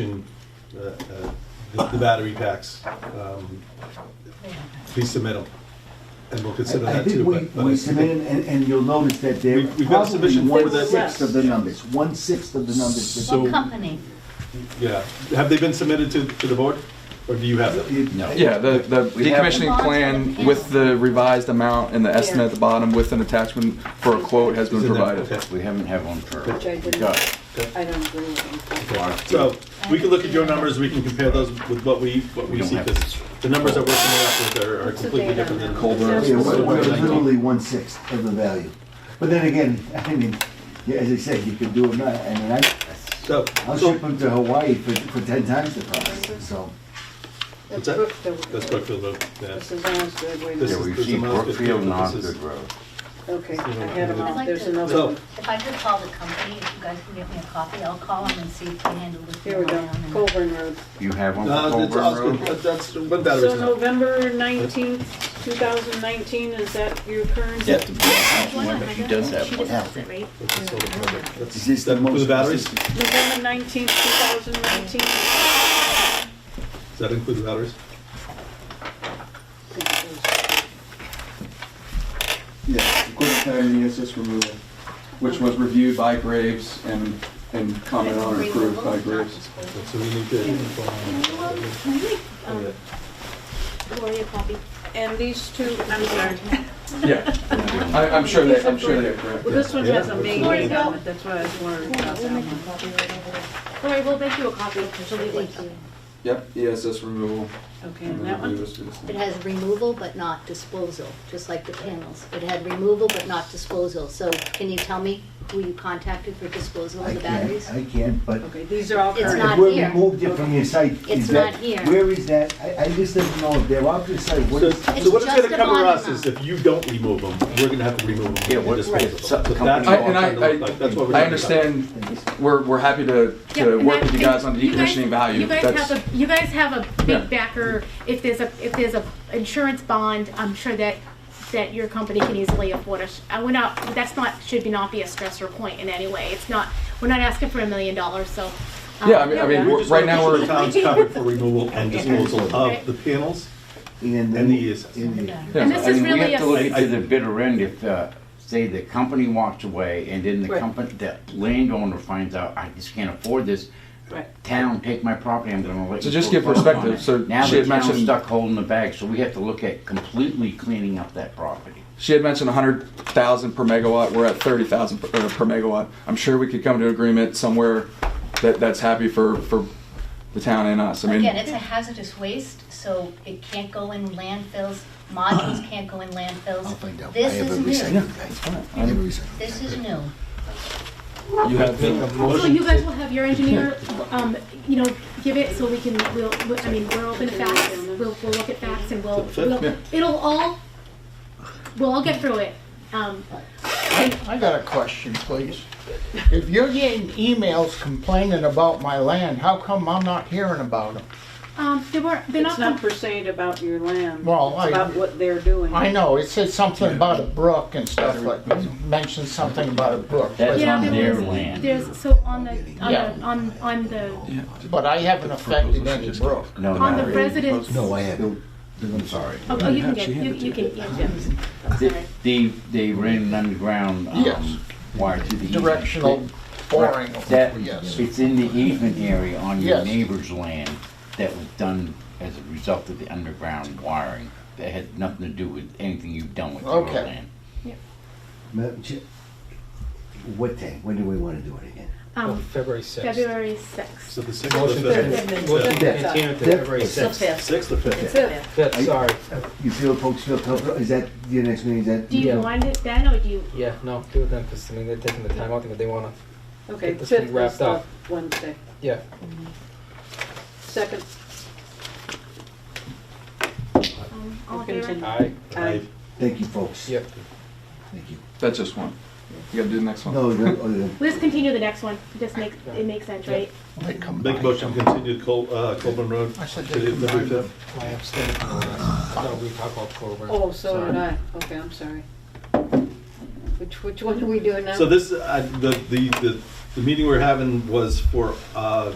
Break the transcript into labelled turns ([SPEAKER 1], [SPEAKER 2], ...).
[SPEAKER 1] uh, uh, the the battery packs, um, please submit them, and we'll consider
[SPEAKER 2] I
[SPEAKER 1] that
[SPEAKER 2] think
[SPEAKER 1] too.
[SPEAKER 2] we,
[SPEAKER 1] but- but I
[SPEAKER 2] we
[SPEAKER 1] think-
[SPEAKER 2] submitted, and, and you'll notice that they're
[SPEAKER 1] We've- we've got a
[SPEAKER 2] probably
[SPEAKER 1] submission for
[SPEAKER 2] one
[SPEAKER 1] the-
[SPEAKER 2] sixth of the numbers, one sixth of the numbers. that-
[SPEAKER 1] So-
[SPEAKER 3] What company?
[SPEAKER 1] Yeah, have they been submitted to, to the board, or do you have them?
[SPEAKER 2] It-
[SPEAKER 4] No.
[SPEAKER 5] Yeah, the, the
[SPEAKER 4] We have-
[SPEAKER 5] decommissioning plan with the revised amount and the estimate at the bottom with an attachment for a quote has been
[SPEAKER 1] Is in there?
[SPEAKER 5] provided.
[SPEAKER 1] Okay.
[SPEAKER 4] We haven't had one for,
[SPEAKER 6] Which I didn't,
[SPEAKER 4] got
[SPEAKER 6] I don't agree with him.
[SPEAKER 1] So, we can look at your numbers, we can compare those with what we, what we
[SPEAKER 4] We don't
[SPEAKER 1] see,
[SPEAKER 4] have
[SPEAKER 1] because the numbers that we're coming up with are- are
[SPEAKER 6] What's the
[SPEAKER 1] completely
[SPEAKER 6] date on
[SPEAKER 1] different than.
[SPEAKER 6] that?
[SPEAKER 4] Colbert.
[SPEAKER 2] Yeah, we're, we're
[SPEAKER 1] Colbert.
[SPEAKER 2] literally one sixth of the value. But then again, I mean, yeah, as I said, you could do it, not- I mean, I,
[SPEAKER 1] So,
[SPEAKER 2] I'll
[SPEAKER 1] so,
[SPEAKER 2] ship them to Hawaii for, for ten times the price, so.
[SPEAKER 1] what's
[SPEAKER 6] That's
[SPEAKER 1] that?
[SPEAKER 6] Brookfield.
[SPEAKER 1] That's Brookfield Road, yeah.
[SPEAKER 6] This is Osgood, wait a
[SPEAKER 1] This
[SPEAKER 4] yeah,
[SPEAKER 6] minute.
[SPEAKER 1] is-
[SPEAKER 4] we've
[SPEAKER 1] this is
[SPEAKER 4] seen
[SPEAKER 1] Mount Good
[SPEAKER 4] Brookfield and
[SPEAKER 1] Road, this is-
[SPEAKER 4] Osgood Road.
[SPEAKER 6] Okay, I had them
[SPEAKER 3] I'd
[SPEAKER 6] all,
[SPEAKER 3] like
[SPEAKER 6] there's
[SPEAKER 3] to,
[SPEAKER 6] another
[SPEAKER 1] So-
[SPEAKER 6] one.
[SPEAKER 3] if I could call the company, if you guys can get me a copy, I'll call them and see if they handle the
[SPEAKER 6] Here we
[SPEAKER 3] fuel
[SPEAKER 6] go,
[SPEAKER 3] on and-
[SPEAKER 6] Colburn Road.
[SPEAKER 4] You have one for
[SPEAKER 1] No, it's
[SPEAKER 4] Colburn
[SPEAKER 1] Osgood,
[SPEAKER 4] Road?
[SPEAKER 1] that- that's, what battery
[SPEAKER 6] So
[SPEAKER 1] is that?
[SPEAKER 6] November nineteenth, two thousand nineteen, is that your current?
[SPEAKER 4] Yeah, to be honest, one, but she does have one.
[SPEAKER 1] That's a solar project. That's-
[SPEAKER 2] Is this the
[SPEAKER 1] that- For the
[SPEAKER 2] most-
[SPEAKER 1] batteries,
[SPEAKER 2] is
[SPEAKER 1] does
[SPEAKER 6] November nineteenth, two thousand nineteen.
[SPEAKER 1] that include the batteries?
[SPEAKER 5] Yeah, equipment plan and ESS removal, which was reviewed by Graves and, and commented on and approved by Graves.
[SPEAKER 1] So we need to inform them. Yeah.
[SPEAKER 7] Gloria copy.
[SPEAKER 6] And these two, I'm sorry,
[SPEAKER 5] Yeah, I, I'm sure they, I'm sure they are correct.
[SPEAKER 6] well, this one
[SPEAKER 1] Yeah.
[SPEAKER 6] has a May
[SPEAKER 7] Where
[SPEAKER 6] date
[SPEAKER 7] you
[SPEAKER 6] on
[SPEAKER 7] go?
[SPEAKER 6] it, that's why I was wondering about that
[SPEAKER 7] We'll make you
[SPEAKER 6] one.
[SPEAKER 7] copy right over there. Gloria, we'll make you a copy. She'll be with you.
[SPEAKER 5] Yep, ESS removal.
[SPEAKER 6] Okay,
[SPEAKER 5] and
[SPEAKER 6] and
[SPEAKER 5] then
[SPEAKER 6] that one?
[SPEAKER 5] Graves did
[SPEAKER 7] It
[SPEAKER 5] this.
[SPEAKER 7] has removal but not disposal, just like the panels. It had removal but not disposal. So can you tell me who you contacted for disposal
[SPEAKER 2] I
[SPEAKER 7] of the
[SPEAKER 2] can't,
[SPEAKER 7] batteries?
[SPEAKER 2] I can't, but
[SPEAKER 6] Okay, these are all
[SPEAKER 7] It's
[SPEAKER 6] current.
[SPEAKER 7] not
[SPEAKER 2] if we
[SPEAKER 7] here.
[SPEAKER 2] removed it from your site,
[SPEAKER 7] It's
[SPEAKER 2] is that,
[SPEAKER 7] not here.
[SPEAKER 2] where is that? I, I just don't know, if they're off your site, what
[SPEAKER 1] So,
[SPEAKER 2] is?
[SPEAKER 1] so what it's
[SPEAKER 7] just
[SPEAKER 1] gonna
[SPEAKER 7] a
[SPEAKER 1] cover us
[SPEAKER 7] monument.
[SPEAKER 1] is if you don't remove them, we're gonna have to remove them.
[SPEAKER 4] Yeah,
[SPEAKER 1] and
[SPEAKER 4] what-
[SPEAKER 1] dispose of
[SPEAKER 4] right.
[SPEAKER 1] them.
[SPEAKER 4] So-
[SPEAKER 1] So
[SPEAKER 4] the
[SPEAKER 1] that's
[SPEAKER 4] company-
[SPEAKER 1] what
[SPEAKER 5] I-
[SPEAKER 1] it's
[SPEAKER 5] and I-
[SPEAKER 1] gonna look like. That's what we're
[SPEAKER 5] I
[SPEAKER 1] talking about.
[SPEAKER 5] understand, we're, we're happy to, to work with you guys on the
[SPEAKER 8] You guys-
[SPEAKER 5] decommissioning value.
[SPEAKER 8] You guys
[SPEAKER 5] That's-
[SPEAKER 8] have a, you guys have a
[SPEAKER 5] Yeah.
[SPEAKER 8] big backer. If there's a, if there's a insurance bond, I'm sure that, that your company can easily afford us. I would not, that's not, should be not be a stressor point in any way. It's not, we're not asking for a million dollars, so. um,
[SPEAKER 5] Yeah, I mean, I
[SPEAKER 6] yeah,
[SPEAKER 5] mean,
[SPEAKER 6] we're
[SPEAKER 5] we're- right now,
[SPEAKER 1] The
[SPEAKER 5] we're,
[SPEAKER 1] town's covered for removal and disposal of
[SPEAKER 8] Right.
[SPEAKER 1] the panels.
[SPEAKER 2] And
[SPEAKER 1] And the ESS.
[SPEAKER 2] and the-
[SPEAKER 5] Yeah.
[SPEAKER 8] And this
[SPEAKER 4] I
[SPEAKER 8] is
[SPEAKER 4] mean, we
[SPEAKER 8] really
[SPEAKER 4] have to
[SPEAKER 8] a,
[SPEAKER 4] look to the bitter end if, uh, say, the company walks away and then the
[SPEAKER 6] Right.
[SPEAKER 4] company, the landowner finds out, I just can't afford this.
[SPEAKER 6] Right.
[SPEAKER 4] Town, take my property, I'm gonna let
[SPEAKER 5] To
[SPEAKER 4] you.
[SPEAKER 5] just give
[SPEAKER 4] foreclose on
[SPEAKER 5] perspective,
[SPEAKER 4] it."
[SPEAKER 5] so
[SPEAKER 4] Now
[SPEAKER 5] she
[SPEAKER 4] the
[SPEAKER 5] had
[SPEAKER 4] town's
[SPEAKER 5] mentioned-
[SPEAKER 4] stuck holding the bag, so we have to look at completely cleaning up that property.
[SPEAKER 5] she had mentioned 100,000 per megawatt. We're at 30,000 per, uh, per megawatt. I'm sure we could come to an agreement somewhere that, that's happy for, for the town and us. I mean,
[SPEAKER 3] Again, it's a hazardous waste, so it can't go in landfills, modules can't go in landfills.
[SPEAKER 2] I'll find out.
[SPEAKER 3] This
[SPEAKER 2] I have
[SPEAKER 3] is
[SPEAKER 2] a
[SPEAKER 3] new,
[SPEAKER 2] recycling guy. I have a recycling.
[SPEAKER 3] this is new.
[SPEAKER 5] you have
[SPEAKER 1] Make a
[SPEAKER 8] so
[SPEAKER 1] motion
[SPEAKER 8] you guys will have your engineer, um, you know, give it so we can, we'll, we- I mean, we're open to facts. We'll, we'll look at facts and we'll, we'll, it'll all, we'll all get through it. Um,
[SPEAKER 9] I got a question, please. If you're getting emails complaining about my land, how come I'm not hearing about them?
[SPEAKER 8] um, they were, they're not.
[SPEAKER 6] It's not per se about your land, it's
[SPEAKER 9] Well, I-
[SPEAKER 6] about what they're doing.
[SPEAKER 9] I know, it said something about a brook and stuff like, mentioned something about a brook.
[SPEAKER 4] That's
[SPEAKER 8] Yeah,
[SPEAKER 4] on
[SPEAKER 8] there
[SPEAKER 4] their
[SPEAKER 8] was-
[SPEAKER 4] land.
[SPEAKER 8] There's, so on the, on
[SPEAKER 9] Yeah.
[SPEAKER 8] the, on, on the,
[SPEAKER 9] But I haven't affected any brook.
[SPEAKER 4] No,
[SPEAKER 8] on the
[SPEAKER 4] no,
[SPEAKER 8] residence.
[SPEAKER 2] No, I haven't. I'm sorry.
[SPEAKER 8] Oh, oh, you can get, you, you can, yeah, yeah.
[SPEAKER 4] They- they, they ran an underground,
[SPEAKER 9] Yes.
[SPEAKER 4] um, wire to the easement.
[SPEAKER 9] Directional boring,
[SPEAKER 4] That,
[SPEAKER 9] yes.
[SPEAKER 4] it's in the easement area on your
[SPEAKER 9] Yes.
[SPEAKER 4] neighbor's land that was done as a result of the underground wiring. That had nothing to do with anything you've done with your
[SPEAKER 9] Okay.
[SPEAKER 4] land.
[SPEAKER 2] Madam Chair, What day, when do we want to do it again?
[SPEAKER 8] Um,
[SPEAKER 10] February 6th.
[SPEAKER 8] February sixth.
[SPEAKER 1] So the sixth or
[SPEAKER 10] Motion
[SPEAKER 1] the
[SPEAKER 10] to
[SPEAKER 1] fifth?
[SPEAKER 10] motion to
[SPEAKER 2] Yeah.
[SPEAKER 10] continue to
[SPEAKER 2] Yeah.
[SPEAKER 10] February
[SPEAKER 2] It's
[SPEAKER 6] It's
[SPEAKER 10] 6th.
[SPEAKER 6] the fifth.
[SPEAKER 1] Sixth or fifth?
[SPEAKER 6] It's the fifth.
[SPEAKER 10] Fifth, sorry.
[SPEAKER 2] You feel folks feel comfortable, is that your next meeting, is that?
[SPEAKER 8] Do you
[SPEAKER 10] Yeah.
[SPEAKER 8] want it then, or do you,
[SPEAKER 10] Yeah, no, do it then, because I mean, they're taking the time out, they wanna,
[SPEAKER 6] Okay,
[SPEAKER 10] Get this thing
[SPEAKER 6] fifth is
[SPEAKER 10] wrapped
[SPEAKER 6] the
[SPEAKER 10] up.
[SPEAKER 6] Wednesday.
[SPEAKER 10] yeah.
[SPEAKER 6] Second,
[SPEAKER 8] um, all
[SPEAKER 6] we'll
[SPEAKER 8] in favor?
[SPEAKER 6] continue.
[SPEAKER 10] Aye.
[SPEAKER 6] Aye.
[SPEAKER 2] Thank you, folks.
[SPEAKER 10] Yep.
[SPEAKER 2] Thank you.
[SPEAKER 5] that's just one. You gotta do the next one.
[SPEAKER 2] No, the- oh, the-
[SPEAKER 8] We'll just continue the next one, it just makes, it makes sense, right?
[SPEAKER 9] They come
[SPEAKER 1] Make a
[SPEAKER 9] by.
[SPEAKER 1] motion to continue Col, uh, Colburn Road.
[SPEAKER 9] I said
[SPEAKER 1] to
[SPEAKER 9] they come
[SPEAKER 1] February
[SPEAKER 9] by.
[SPEAKER 1] fifth.
[SPEAKER 10] I abstain. No, we talk about Colburn.
[SPEAKER 6] Oh, so
[SPEAKER 10] Sorry.
[SPEAKER 6] did I. Okay, I'm sorry. Which, which one are we doing now?
[SPEAKER 1] So this, uh, the, the, the, the meeting we're having was for, uh,